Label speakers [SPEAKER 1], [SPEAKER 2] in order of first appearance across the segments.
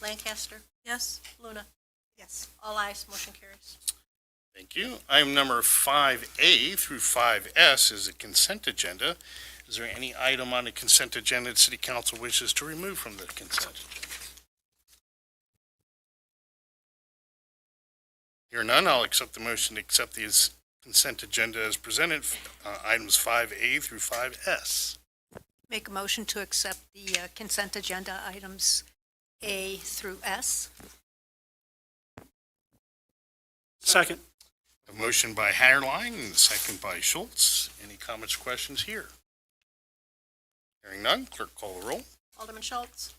[SPEAKER 1] Lancaster. Yes. Luna.
[SPEAKER 2] Yes.
[SPEAKER 1] All eyes, motion carries.
[SPEAKER 3] Thank you. Item number 5A through 5S is a consent agenda. Is there any item on the consent agenda that City Council wishes to remove from the consent? agenda? Hear none, I'll accept the motion to accept the consent agenda as presented, uh, items 5A through 5S.
[SPEAKER 1] Make a motion to accept the uh, consent agenda items A through S.
[SPEAKER 4] Second.
[SPEAKER 3] A motion by Hatterline and a second by Schultz. Any comments or questions here? Hearing none, clerk call the roll.
[SPEAKER 1] Alderman Schultz,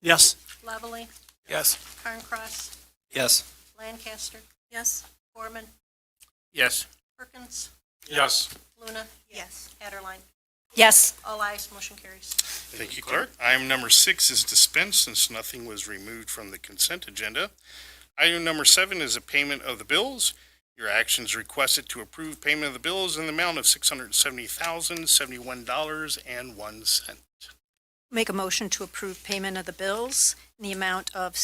[SPEAKER 4] Yes.
[SPEAKER 1] Lovely,
[SPEAKER 4] Yes.
[SPEAKER 1] Carncross,
[SPEAKER 4] Yes.
[SPEAKER 1] Lancaster. Yes. Gorman,
[SPEAKER 3] Yes.
[SPEAKER 1] Perkins,
[SPEAKER 4] Yes.
[SPEAKER 1] Luna,
[SPEAKER 2] Yes.
[SPEAKER 1] Hatterline.
[SPEAKER 2] Yes.
[SPEAKER 1] All eyes, motion carries.
[SPEAKER 3] Thank you, Clerk. Item number six is dispensed since nothing was removed from the consent agenda. Item number seven is a payment of the bills. Your action is requested to approve payment of the bills in the amount of six hundred seventy thousand, seventy-one dollars and one cent.
[SPEAKER 1] Make a motion to approve payment of the bills in the amount of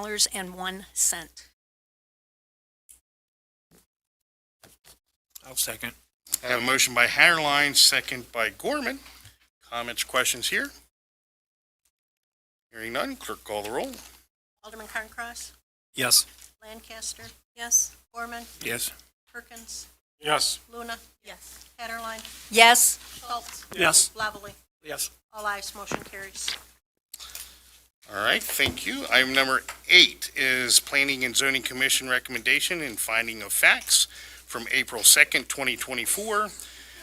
[SPEAKER 1] $670,071.01.
[SPEAKER 4] I'll second.
[SPEAKER 3] I have a motion by Hatterline, second by Gorman. Comments, questions here? Hearing none, clerk call the roll.
[SPEAKER 1] Alderman Carncross,
[SPEAKER 4] Yes.
[SPEAKER 1] Lancaster. Yes. Gorman,
[SPEAKER 4] Yes.
[SPEAKER 1] Perkins,
[SPEAKER 4] Yes.
[SPEAKER 1] Luna. Yes. Hatterline,
[SPEAKER 2] Yes.
[SPEAKER 1] Schultz,
[SPEAKER 4] Yes.
[SPEAKER 1] Lovely.
[SPEAKER 4] Yes.
[SPEAKER 1] All eyes, motion carries.
[SPEAKER 3] All right, thank you. Item number eight is Planning and Zoning Commission recommendation and finding of facts from April 2nd, 2024.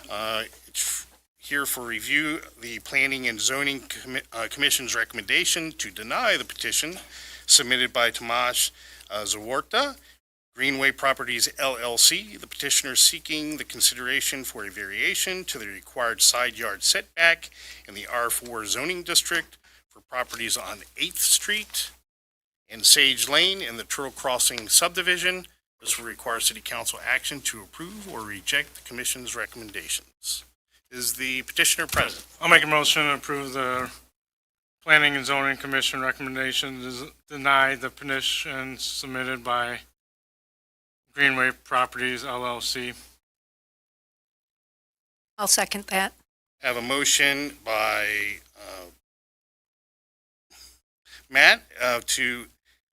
[SPEAKER 3] Uh, it's Here for review, the Planning and Zoning Commi- uh, Commission's recommendation to deny the petition submitted by Tomasz uh, Zawarta, Greenway Properties LLC. The petitioner seeking the consideration for a variation to the required side yard setback in the R4 zoning district for properties on Eighth Street and Sage Lane in the Turtle Crossing subdivision. This will require city council action to approve or reject the commission's recommendations. Is the petitioner present?
[SPEAKER 5] I'll make a motion to approve the Planning and Zoning Commission recommendation to deny the petition submitted by Greenway Properties LLC.
[SPEAKER 1] I'll second that.
[SPEAKER 3] Have a motion by, uh, Matt, uh, to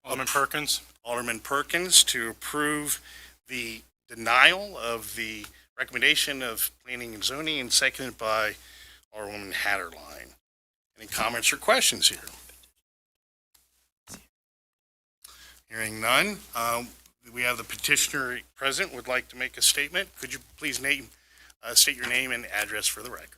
[SPEAKER 5] Alderman Perkins?
[SPEAKER 3] Alderman Perkins to approve the denial of the recommendation of planning and zoning and seconded by Alderwoman Hatterline. Any comments or questions here? Hearing none, um, we have the petitioner present would like to make a statement. Could you please name, uh, state your name and address for the record?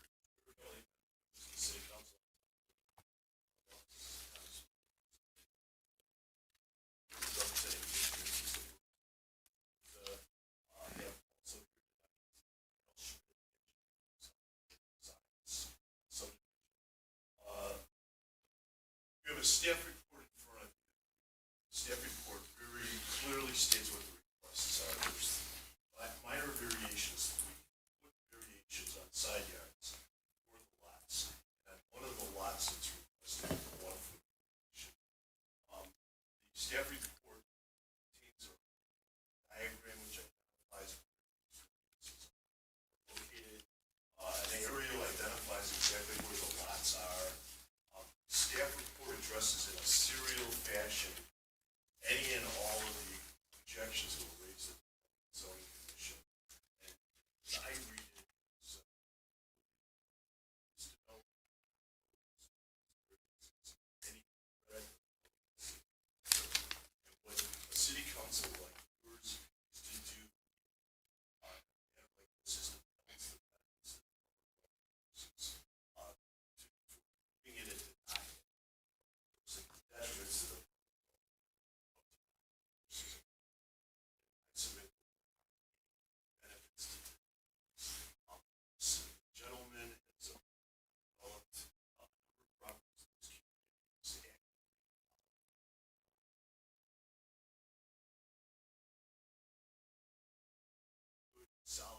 [SPEAKER 6] You have a staff report in front of you. Staff report very clearly states what the requests are. There's mi- minor variations, we put variations on side yards for the lots. And one of the lots that's requested, is a one foot variation. Um, the staff report contains a diagram which identifies where these variances are located. Uh, an aerial identifies exactly where the lots are. Um, Staff report addresses in a serial fashion any and all of the objections that were raised at the zoning commission. And as I read it, so. Any red. And what a city council like yours is to do. uh, have like this is the- that's the- that's the- uh, to- for being in it denied. It's like detriments to the. Submit. Benefits to. um, this Gentleman has developed uh, a number of properties in this community. He's a Good, solid